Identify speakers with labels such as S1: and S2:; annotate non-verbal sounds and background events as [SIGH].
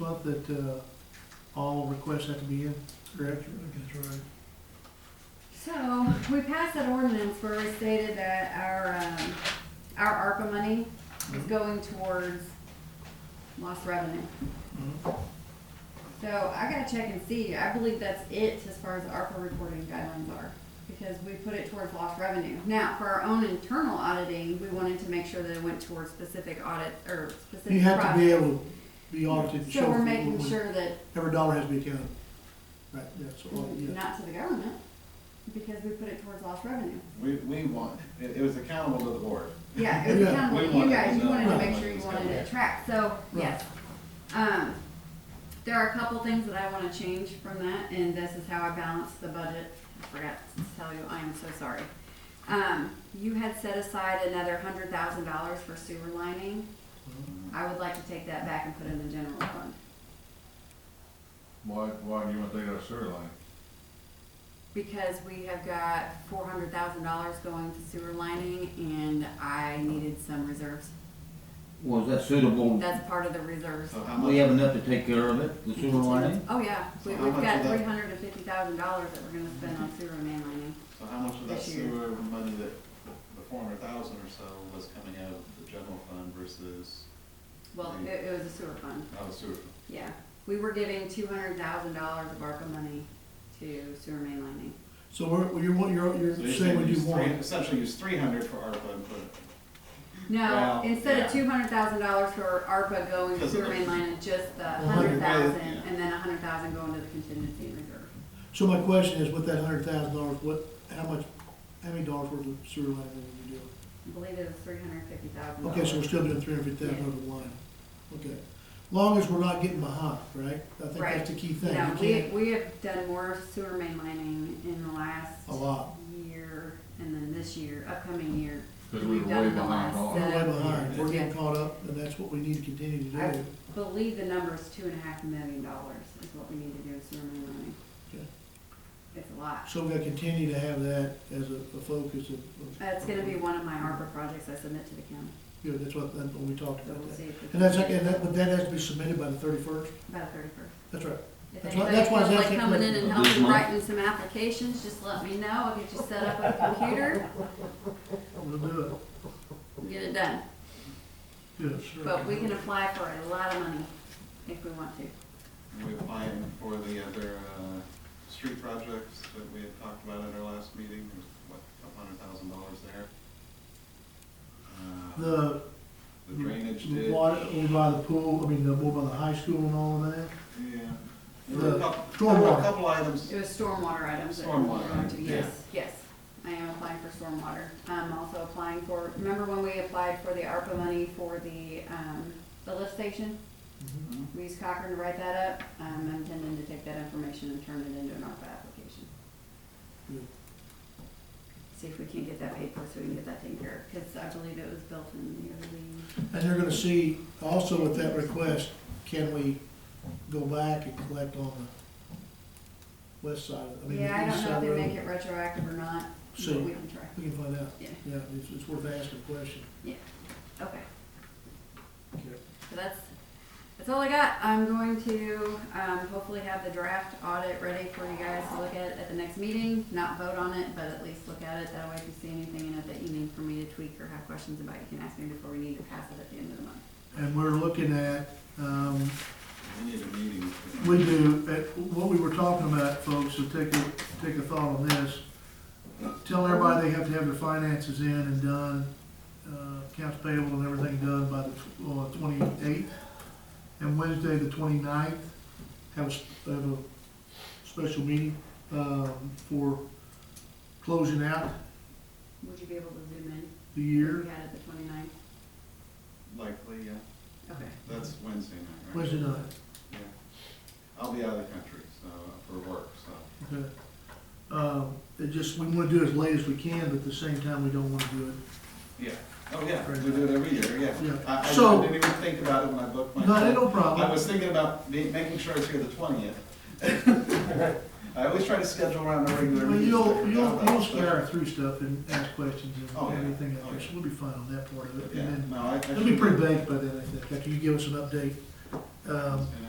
S1: month that, uh, all requests have to be in, correct? That's right.
S2: So, we passed that ordinance where we stated that our, um, our ARPA money is
S1: Mm-hmm.
S2: going towards lost revenue.
S1: Mhm.
S2: So I gotta check and see, I believe that's it as far as ARPA reporting guidelines are, because we put it towards lost revenue. Now, for our own internal auditing, we wanted to make sure that it went towards specific audit, or
S1: You
S2: specific
S1: have to be
S2: projects.
S1: able to be audited. and
S2: So
S1: show
S2: we're
S1: for
S2: making
S1: what-
S2: sure that,
S1: Every dollar has to be counted. Right, that's all, yeah.
S2: not to the government, because we put it towards lost revenue.
S3: We, we want, it, it was accountable to the board.
S2: Yeah, it was
S1: Yeah.
S2: accountable
S3: We
S2: to you
S3: wanted
S2: guys,
S3: to
S2: you
S3: know
S2: wanted to
S3: how
S2: make
S3: much
S2: sure you
S3: was
S2: wanted
S3: coming
S2: it
S3: in.
S2: tracked, so, yes. Um, there are a couple things that I wanna change from that, and this is how I balance the budget, I forgot to tell you, I am so sorry. Um, you had set aside another hundred thousand dollars for sewer lining, I would like to take that back and put it in the general fund,
S4: Why, why do you want to take out a sewer line?
S2: because we have got four hundred thousand dollars going to sewer lining, and I needed some reserves.
S5: Well, is that suitable?
S2: That's part of the reserves.
S3: So how
S5: We
S3: much,
S5: have enough to take care of it, the sewer line?
S2: Oh, yeah, we,
S3: So how
S2: we've
S3: much
S2: got
S3: of that-
S2: three hundred and fifty thousand dollars that we're gonna spend on sewer mainlining.
S3: so how much of that
S2: this year.
S3: sewer money that, the four hundred thousand or so was coming out of the general fund versus,
S2: Well,
S3: Right.
S2: it, it was a sewer fund,
S3: out of sewer? fund?
S2: yeah. We were giving two hundred thousand dollars of ARPA money to sewer mainlining.
S1: So we're, you're, one- you're,
S3: So you're
S1: you're saying what
S3: use
S1: you
S3: three-
S1: want.
S3: Essentially use three hundred for ARPA and put it,
S2: No,
S3: Well,
S2: instead of
S3: yeah.
S2: two hundred thousand dollars for ARPA going to
S3: Because of
S2: sewer
S3: the-
S2: mainlining, just the
S1: Well, hundred
S2: hundred thousand,
S3: thousand, yeah.
S2: and then a hundred thousand going to the contingency reserve.
S1: So my question is, with that hundred thousand dollars, what, how much, how many dollars worth of sewer line did you do?
S2: I believe it was three hundred fifty thousand
S1: Okay,
S2: dollars.
S1: so we're still doing three hundred fifty thousand over the line. Okay. Long as we're not getting behind, right? I think
S2: Right.
S1: that's the key thing.
S2: No,
S1: You
S2: we,
S1: can't,
S2: we have done more sewer mainlining in the last
S1: a lot.
S2: year and then this year, upcoming year.
S4: Because we were way behind
S1: We're
S4: on
S1: way
S2: So-
S1: behind. We're
S2: Yeah.
S1: getting caught up, and that's what we need to continue to do.
S2: I believe the number is two and a half million dollars is what we need to do in sewer mainlining.
S1: Okay.
S2: It's a lot.
S1: So we gotta continue to have that as a, a focus of. of-
S2: Uh, It's gonna be one of my ARPA projects I submit to the county,
S1: Yeah, that's what, that's what we talked
S2: so
S1: about
S2: we'll
S1: that.
S2: see if it's.
S1: And that's, and that, but that has to be submitted by the thirty-first?
S2: About thirty-first.
S1: That's right.
S2: If
S1: That's why-
S2: anybody
S1: that's why I
S2: feels
S1: was
S2: like
S1: asking
S2: coming in and
S1: for-
S2: helping
S5: This month.
S2: writing some applications, just let me know. I'll get you set up with a computer,
S1: We'll do it.
S2: and get it done.
S1: Yes, sir.
S2: But we can apply for a lot of money if we want to.
S3: and we applying for the other, uh, street projects that we had talked about at our last meeting, There's, what, a couple hundred thousand dollars there. Uh,
S1: The
S3: The drainage
S1: the
S3: ditch.
S1: water, over by the pool, I mean, the, over by the high school and all of that.
S3: Yeah. There were a
S1: The
S3: couple, there were
S1: stormwater.
S3: a couple items.
S2: It was stormwater items. that we were going to-
S3: Stormwater,
S2: Yes, yes. I am applying for stormwater. I'm also applying for, remember when we applied for the ARPA money for the, um, the lift station?
S1: Mm-hmm.
S3: Mhm.
S2: We used Cochran to write that up. Um, I'm intending to take that information and turn it into an ARPA application.
S1: Good.
S2: See if we can get that paid for so we can get that taken care of, because I believe it was built in the early,
S1: And they're gonna see, also with that request, can we go back and collect on the west side, I mean,
S2: yeah, I
S1: the east
S2: don't know if
S1: side
S2: they make
S1: road?
S2: it retroactive or not, but
S1: So-
S2: we can try.
S1: We can find out.
S2: Yeah,
S1: Yeah, it's, it's worth asking a question.
S2: okay. So that's, that's all I got. I'm going to, um, hopefully have the draft audit ready for you guys to look at at the next meeting. Not vote on it, but at least look at it. That way if you see anything in it that you need for me to tweak or have questions about, you can ask me before we need to pass it at the end of the month.
S1: And we're looking at, um,
S3: We need a meeting.
S1: We do, uh, what we were talking about, folks, so take a, take a thought on this. Tell everybody they have to have their finances in and done, uh, accounts payable and everything done by the, uh, twenty-eighth. And Wednesday, the 29th, have a, s- have a special meeting, um, for closing out
S2: Would you be able to zoom in?
S1: the year.
S2: We had it the twenty-ninth.
S3: Likely, yeah.
S2: Okay.
S3: That's Wednesday night, right?
S1: Wednesday night,
S3: Yeah. I'll be out of the country, so, for work, so.
S1: okay. Um, it just, we wanna do it as late as we can, but at the same time, we don't wanna do it.
S3: Yeah. Oh, yeah. We do it every year, yeah.
S1: Yeah.
S3: I, I
S1: So-
S3: didn't even think about it when I booked my.
S1: No,
S3: trip.
S1: no problem.
S3: I was thinking about ma- making sure it's here the
S1: [LAUGHS]
S3: twentieth. I always try to schedule around a regular.
S1: Well,
S3: meeting.
S1: you'll, you'll, you'll
S3: But-
S1: scare through stuff and ask questions
S3: Oh,
S1: and
S3: yeah.
S1: everything out
S3: Oh,
S1: there,
S3: yeah.
S1: so we'll be fine on that part of it.
S3: Yeah,
S1: And then,
S3: no, I. I
S1: it'll be
S3: should-
S1: pretty baked by then, I think, after you give us an update. Um,
S3: And